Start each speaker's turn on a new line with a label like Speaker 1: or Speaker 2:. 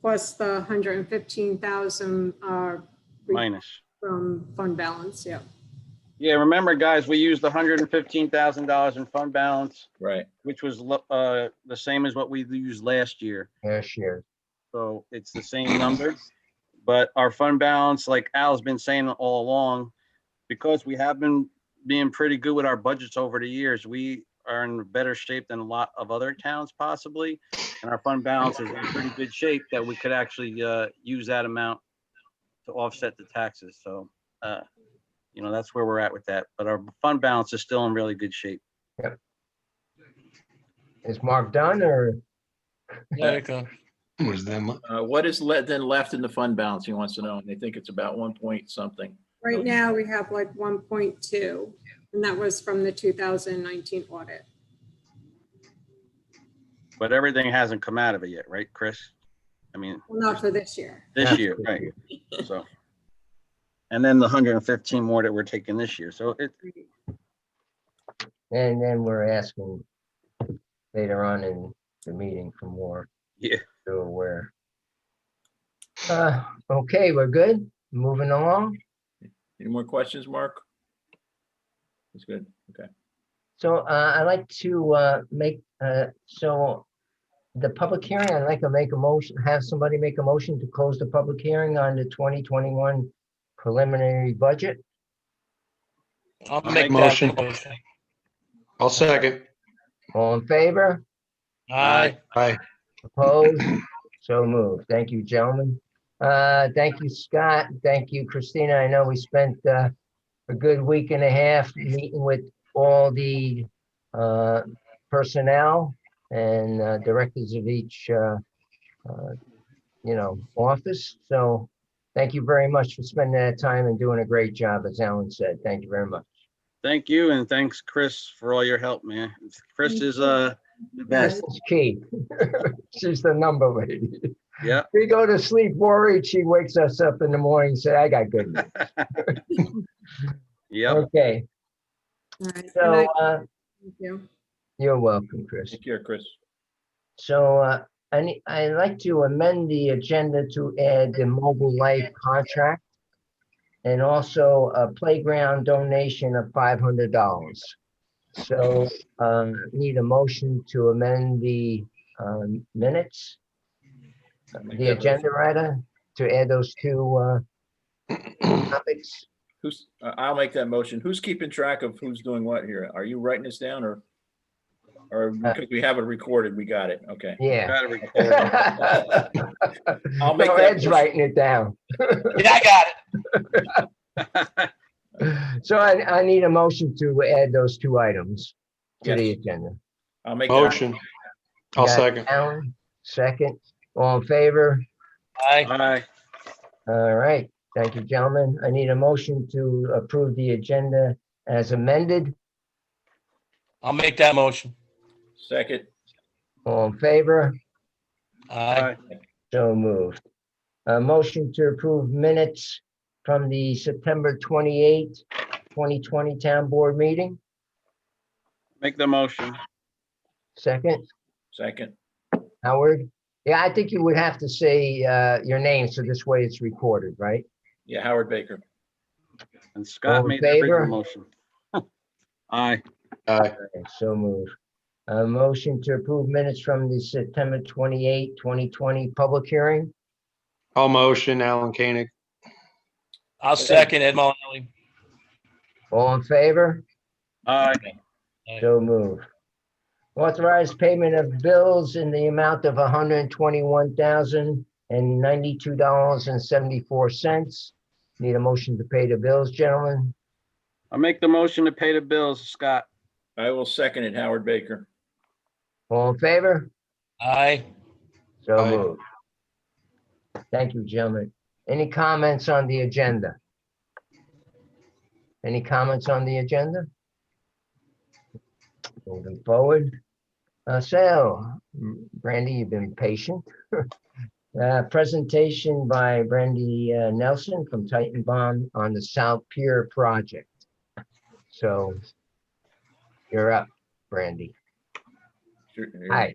Speaker 1: plus the 115,000 uh, re-
Speaker 2: minus.
Speaker 1: from fund balance, yeah.
Speaker 2: Yeah, remember, guys, we used hundred and fifteen thousand dollars in fund balance,
Speaker 3: Right.
Speaker 2: which was lo- uh, the same as what we used last year.
Speaker 4: last year.
Speaker 2: So it's the same number. But our fund balance, like Al's been saying all along, because we have been being pretty good with our budgets over the years, we are in better shape than a lot of other towns possibly. And our fund balance is in pretty good shape that we could actually uh, use that amount to offset the taxes. So, uh, you know, that's where we're at with that. But our fund balance is still in really good shape.
Speaker 4: Is Mark done or
Speaker 5: Yeah, you go.
Speaker 6: Was them,
Speaker 3: Uh, what is le- then left in the fund balance? He wants to know, and they think it's about one point something.
Speaker 1: Right now, we have like 1.2, and that was from the 2019 audit.
Speaker 2: But everything hasn't come out of it yet, right, Chris? I mean,
Speaker 1: Well, not for this year.
Speaker 2: this year, right? So. And then the hundred and fifteen more that we're taking this year. So it,
Speaker 4: And then we're asking later on in the meeting for more.
Speaker 2: Yeah.
Speaker 4: So aware. Uh, okay, we're good. Moving along.
Speaker 3: Any more questions, Mark? That's good. Okay.
Speaker 4: So uh, I'd like to uh, make, uh, so the public hearing, I'd like to make a motion, have somebody make a motion to close the public hearing on the 2021 preliminary budget.
Speaker 5: I'll
Speaker 2: I'll
Speaker 5: make
Speaker 2: make that
Speaker 5: that motion.
Speaker 6: I'll second.
Speaker 4: All in favor?
Speaker 5: Aye.
Speaker 6: Aye.
Speaker 4: Opposed? So moved. Thank you, gentlemen. Uh, Thank you, Scott. Thank you, Christina. I know we spent uh, a good week and a half meeting with all the uh, personnel and uh, directors of each, uh, uh, you know, office. So thank you very much for spending that time and doing a great job, as Alan said. Thank you very much.
Speaker 2: thank you and thanks, Chris, for all your help, man. Chris is, uh, the best.
Speaker 4: That's key. She's the number lady.
Speaker 2: Yeah.
Speaker 4: We go to sleep worried. She wakes us up in the morning and say, I got good news.
Speaker 2: Yep.
Speaker 4: Okay,
Speaker 1: All right, good
Speaker 4: so
Speaker 1: night,
Speaker 4: uh,
Speaker 1: thank you.
Speaker 4: you're welcome, Chris.
Speaker 3: Take care, Chris.
Speaker 4: So uh, I ne- I'd like to amend the agenda to add the mobile life contract and also a playground donation of five hundred dollars. So um, need a motion to amend the um, minutes, the agenda rather, to add those two uh, topics.
Speaker 3: Who's, I- I'll make that motion. Who's keeping track of who's doing what here? Are you writing this down or? Or
Speaker 4: Uh,
Speaker 3: because we have it recorded, we got it. Okay.
Speaker 4: Yeah.
Speaker 2: Gotta record.
Speaker 4: No,
Speaker 3: I'll make that
Speaker 4: Ed's
Speaker 3: motion.
Speaker 4: writing it down.
Speaker 5: Yeah, I got it.
Speaker 4: So I, I need a motion to add those two items to the
Speaker 3: Yes.
Speaker 4: agenda.
Speaker 3: I'll make. that-
Speaker 6: Motion. I'll
Speaker 4: Got
Speaker 6: second.
Speaker 4: Alan, second, all in favor?
Speaker 5: Aye.
Speaker 2: Bye.
Speaker 4: All right, thank you, gentlemen. I need a motion to approve the agenda as amended,
Speaker 5: I'll make that motion.
Speaker 3: Second.
Speaker 4: all in favor?
Speaker 5: Aye.
Speaker 4: So moved. A motion to approve minutes from the September 28, 2020 Town Board meeting,
Speaker 2: Make the motion.
Speaker 4: second.
Speaker 3: Second.
Speaker 4: Howard? Yeah, I think you would have to say uh, your name, so this way it's recorded, right?
Speaker 3: Yeah, Howard Baker.
Speaker 2: And
Speaker 4: All
Speaker 2: Scott
Speaker 4: in
Speaker 2: made the original
Speaker 4: favor?
Speaker 2: motion. Aye.
Speaker 6: Aye.
Speaker 4: Okay, So moved. A motion to approve minutes from the September 28, 2020 public hearing.
Speaker 6: I'll motion Alan Koenig.
Speaker 5: I'll second Ed Mullenelli.
Speaker 4: All in favor?
Speaker 2: Aye.
Speaker 4: So moved. Authorized payment of bills in the amount of $121,092.74. Need a motion to pay the bills, gentlemen?
Speaker 2: I make the motion to pay the bills, Scott.
Speaker 3: I will second it, Howard Baker.
Speaker 4: All in favor?
Speaker 5: Aye.
Speaker 4: So
Speaker 6: Aye.
Speaker 4: moved. Thank you, gentlemen. Any comments on the agenda? Any comments on the agenda? Moving forward. Uh, So, Brandy, you've been patient. Uh, Presentation by Brandy uh, Nelson from Titan Bond on the South Pier project. So you're up, Brandy.
Speaker 3: Sure.
Speaker 4: Hi.